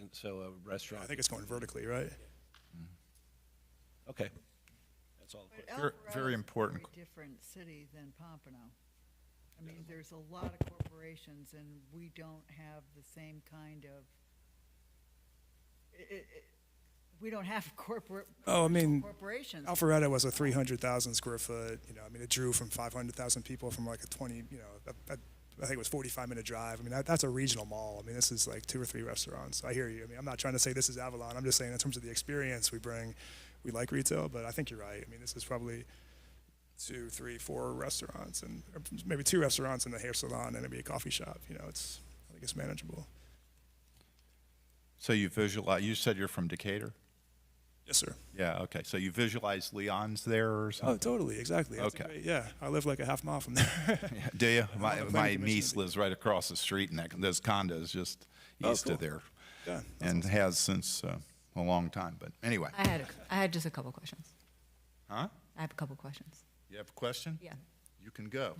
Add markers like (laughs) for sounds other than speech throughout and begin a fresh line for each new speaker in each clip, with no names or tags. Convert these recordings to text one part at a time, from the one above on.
and so a
I
restaurant.
think it's going vertically, right?
Okay. That's all. the
But
que-
Alpharetta
very
is a
important
very different city than Pompano. I mean, there's a lot of corporations and we don't have the same kind of, i- i- i- we don't have (laughs) corporate,
Oh, I mean,
corporations.
Alpharetta was a 300,000 square foot, you know, I mean, it drew from 500,000 people from like a 20, you know, a, a, I think it was 45 minute drive. I mean, that, that's a regional mall. I mean, this is like two or three restaurants. I hear you. I mean, I'm not trying to say this is Avalon. I'm just saying in terms of the experience we bring, we like retail, but I think you're right. I mean, this is probably two, three, four restaurants and or maybe two restaurants and a hair salon and maybe a coffee shop. You know, it's, I think it's manageable.
So you visualize, you said you're from Decatur?
Yes, sir.
Yeah, okay. So you visualize Leon's there or
Oh,
something?
totally. Exactly. That's a
Okay.
great- yeah. I live like a half mile from there.
(laughs)
(laughs)
Yeah, Do you?
the
My,
planning
my
commission.
niece lives right across the street in that, those condos just
Oh,
east
cool.
of there.
Yeah, that's
And has since uh, a long time, but anyway.
I had, a- I had just a couple questions.
Huh?
I have a couple questions.
You have a question?
Yeah.
You can
(laughs)
go.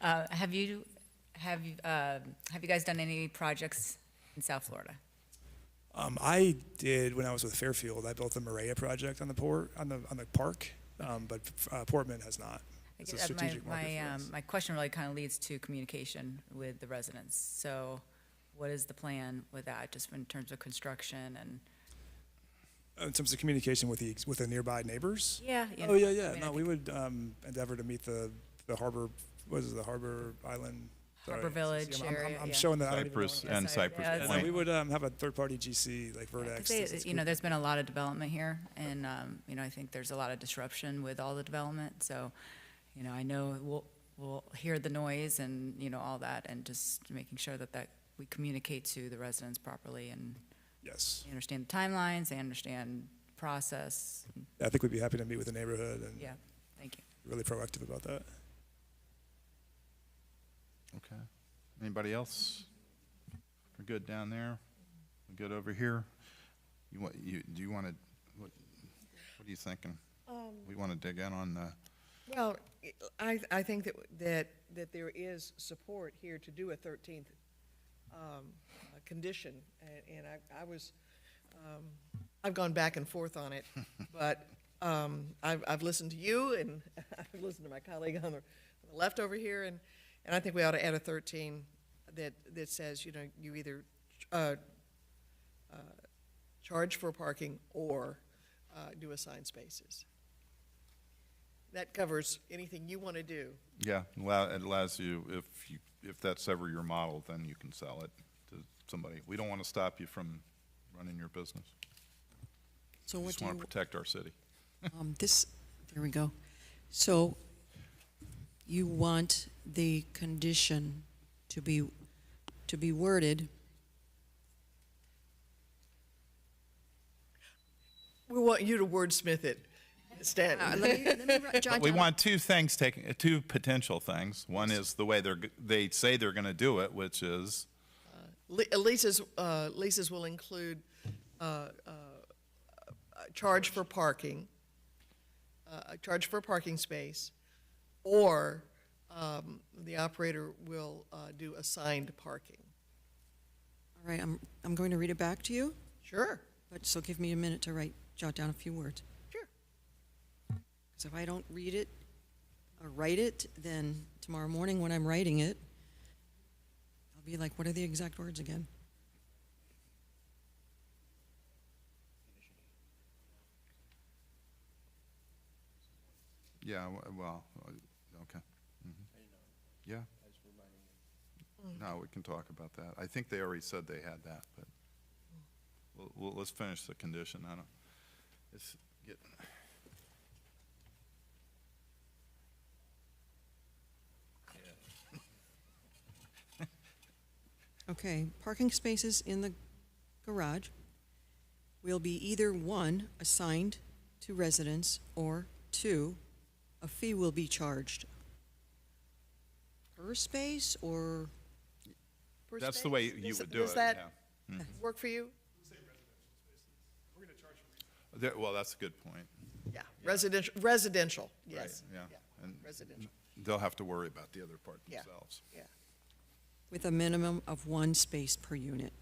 Uh, have you, have you, uh, have you guys done any projects in South Florida?
Um, I did when I was with Fairfield. I built the Maria project on the port on the on the park, um, but uh, Portman has not.
I
It's a
guess, uh, my-
strategic market
My,
for us.
um, my question really kind of leads to communication with the residents. So what is the plan with that, just in terms of construction and?
in terms of communication with the with the nearby neighbors.
um, Yeah. you
Oh
know,
yeah,
I
yeah.
mean, I
No, we
think
would um, endeavor to meet the the harbor. What is it, the harbor island? Sorry.
Harbor Village
See, I'm, I'm-
area,
I'm
yeah.
showing that. I don't even know
Cypress
what
Yeah,
and
sorry. Yeah,
Cypress
I'm-
it's-
Yeah, no, we
Point.
would um, have a third party GC like Verdex.
'cause they-
this is
You know,
cool.
there's been a lot of development here and, um, you know, I think there's a lot of disruption with all the development. So, you know, I know we'll, we'll hear the noise and, you know, all that and just making sure that that, we communicate to the residents properly and
yes.
they understand the timelines, they understand process.
I think we'd be happy to meet with the neighborhood and
Yeah, thank you.
really proactive about that.
Okay. Anybody else? We're good down there? We're good over here? You want, you, do you want to, what, what are you thinking? We want to dig in on the,
Well,
I, I think that, that, that there is support here to do a thirteenth, um, uh, condition, and, and I, I was, um, I've gone back and forth on it, but, um, I've, I've listened to you, and (laughs) I've listened to my colleague on the, on the left over here, and, and I think we ought to add a thirteen that, that says, you know, you either, uh, uh, charge for parking or, uh, do assigned spaces. That covers anything you want to do.
yeah, allow- it allows you, if you, if that's ever your model, then you can sell it to somebody. We don't want to stop you from running your business.
So
We
what
just
do you,
want to protect our city.
um, this, there we go. So you want the condition to be, to be worded,
We want you to wordsmith it,
uh,
Stanton. (laughs)
let me, let me ri- jot
But we
down-
want two things taken, uh, two potential things. One is the way they're, g- they say they're going to do it, which is,
Le- uh, Lisa's, uh, Lisa's will include uh, uh, a charge for parking, uh, a charge for a parking space, or um, the operator will uh, do assigned parking.
All right, I'm, I'm going to read it back to you,
Sure,
but so give me a minute to write, jot down a few words.
sure.
Because if I don't read it or write it, then tomorrow morning when I'm writing it, I'll be like, what are the exact words again?
yeah, w- well, uh, okay. Mhm. Yeah. No, we can talk about that. I think they already said they had that, but we'll- we'll, let's finish the condition. I don't, it's get,
Okay, parking spaces in the garage will be either one, assigned to residents, or two, a fee will be charged. Per space, or,
Per
that's the way
space?
you
Does-
would do it,
Does
yeah.
that work for you?
There- Well, that's a good point.
Yeah, residential, residential,
Right,
yes.
Yeah. And
Residential,
They'll have to worry about the other part
Yeah.
themselves.
yeah.
with a minimum of one space per unit.